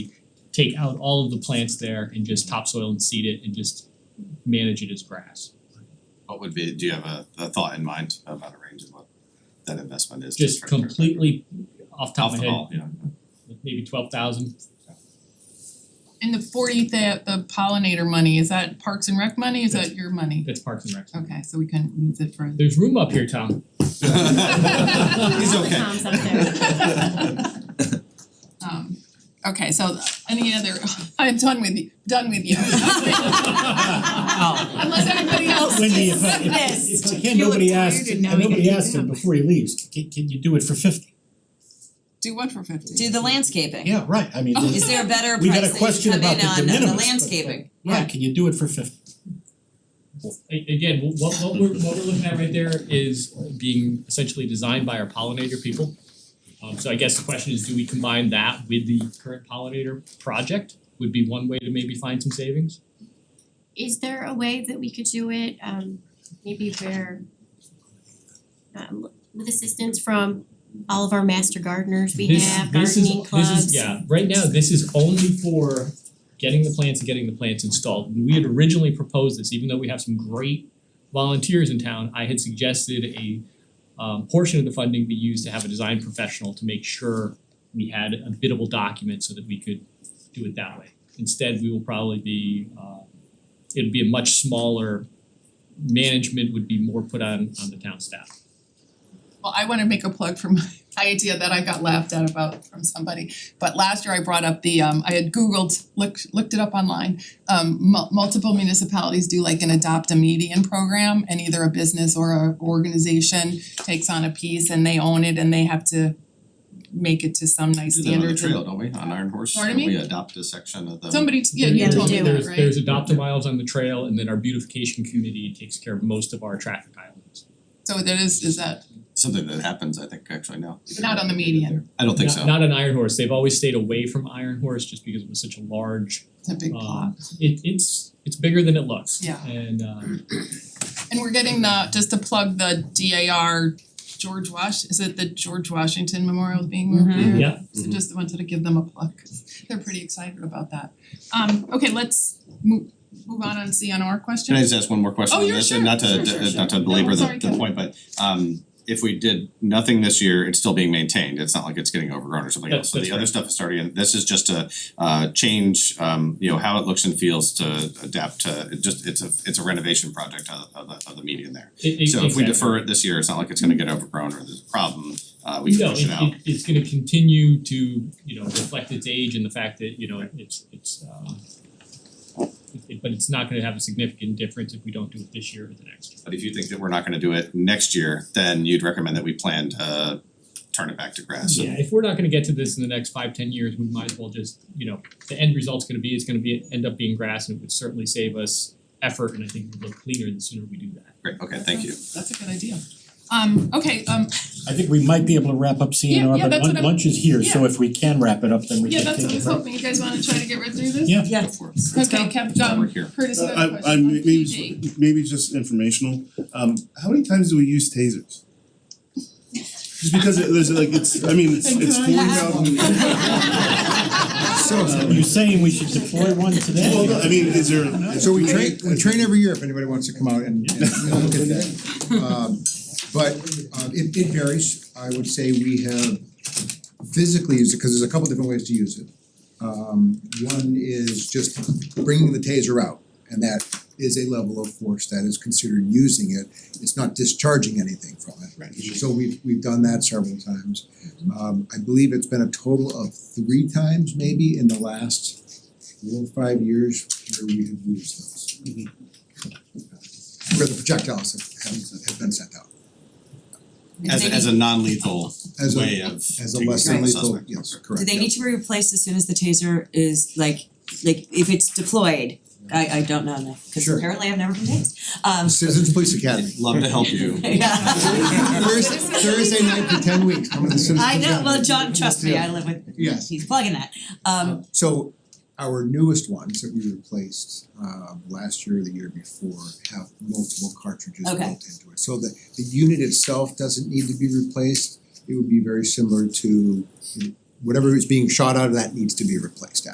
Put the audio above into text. take out all of the plants there and just topsoil and seed it and just manage it as grass. What would be, do you have a a thought in mind about a range of what that investment is? to Just try to- completely off top Off of the my head, ball, yeah. maybe twelve thousand. And the forty that the pollinator money, is that Parks and Rec money, is that your money? That's Parks and Rec. Okay, so we couldn't use it for There's room up here, Tom. He's All the okay. Toms up there. um okay, so any other, I'm done with you, done with you. Unless anybody else Wendy, is if I Yes. if I can, You look nobody tired asked, and and now we gotta nobody get asked him up. before he leaves, can can you do it for fifty? do one for fifty. Do the landscaping. Yeah, right, I Oh, mean, Is there a better we got a price that you question come about in the on de on the landscaping? minimis, but- Yeah, can you do it for fifty? A- again, wh- what what we're what we're looking at right there is being essentially designed by our pollinator people. Um so I guess the question is, do we combine that with the current pollinator project would be one way to maybe find some savings? Is there a way that we could do it, um, maybe where um, with assistance from all of our master gardeners we This- have, this is- gardening clubs? This is, yeah, right now, this is only for getting the plants and getting the plants installed. When we had originally proposed this, even though we have some great volunteers in town, I had suggested a um portion of the funding be used to have a design professional to make sure we had a biddable document so that we could do it that way. Instead, we will probably be uh it'd be a much smaller management would be more put on on the town staff. Well, I wanna make a plug for my my idea that I got laughed at about from somebody. But last year I brought up the um I had Googled, looked looked it up online. Um mul- multiple municipalities do like an adopt a median program and either a business or a organization takes on a piece and they own it and they have to make it to some nice Do that on the standards and- trail, don't we, on Iron Horse, Pardon Don't we me? adopt a section of the. Somebody, t- yeah, you There's- told me that, There's right? there's adopt a miles on the trail and then our beautification committee takes care of most of our traffic islands. So that is is that, Something that happens, I think, actually now. Not on the median. I don't think Not- so. Not an Iron Horse, they've always stayed away from Iron Horse just because it was such a large, it's a Uh, big plot. um, it it's it's bigger than it looks. Yeah. And um And we're getting the, just to plug the DAR George Wash, is it the George Washington Memorial being moved Mhm. there? yeah, So just wanted to give them a plug, 'cause they're pretty excited about that. Um okay, let's move move on and CNR Can I questions. just ask one more question Oh, on yeah, this, sure, and not to sure, sure, uh, sure. not to No, belabor the sorry, the Kevin. point, but um if we did nothing this year, it's still being maintained, it's not like it's getting overgrown or something That- else, so that's the other right. stuff is starting, and this is just a uh change, um you know, how it looks and feels to adapt to, it just, it's a it's a renovation project of of the of the median there. it E-, it So if we exactly. defer it this year, it's not like it's gonna get overgrown or there's a problem, uh we can push it out. No, it it it's gonna continue to, you know, reflect its age and the fact that, you know, it's it's um it- it- but it's not gonna have a significant difference if we don't do it this year or the next. But if you think that we're not gonna do it next year, then you'd recommend that we plan to turn it back to grass. Yeah, if we're not gonna get to this in the next five, ten years, we might as well just, you know, the end result's gonna be, it's gonna be, end up being grass and it would certainly save us effort and I think it would look cleaner the sooner we do that. Great, okay, thank you. That's a good idea. Um okay, um I think we might be able to wrap up Yeah, yeah, CNR, but that's what lun- I'm- lunch is here, so yeah. if we can wrap it up, then we yeah, can that's take what I it was from. hoping, you guys wanna try to get right through this? Yeah. Yeah. Go for it. Okay, Kev, We're um here. Curtis, you have a I question Uh, I on maybe PG. it's- maybe it's just informational, um how many times do we use tasers? Just because it there's like it's, I mean, it's it's forty thousand. So you're saying we should deploy one today? Well, no, I mean, is there? is- So we train, we train every year if anybody wants to come out and and look at that. Um but uh it it varies, I would say we have physically used it, cause there's a couple different ways to use it. Um one is just bringing the taser out, and that is a level of force that is considered using it. It's not discharging anything from it. Right. So we've we've done that several times. Um I believe it's been a total of three times maybe in the last four or five years where we have used those. Where the projectiles have have have been sent out As a as a non-lethal as way a of as a taking less care than of the lethal, Oh, suspect. yes, correct. Do they yeah. need to be replaced as soon as the taser is like, like if it's deployed? I I don't know now, cause Sure. apparently I've never been tased. Um, Citizens Police Academy. Love to help you. yeah. Thursday Thursday night for ten weeks, come to the Citizens I Academy. know, well, John, trust me, I live with, Yes. he's plugging that. Um, So our newest ones that we replaced um last year or the year before have multiple cartridges built Okay. into it. So the the unit itself doesn't need to be replaced, it would be very similar to you know, whatever is being shot out of that needs to be replaced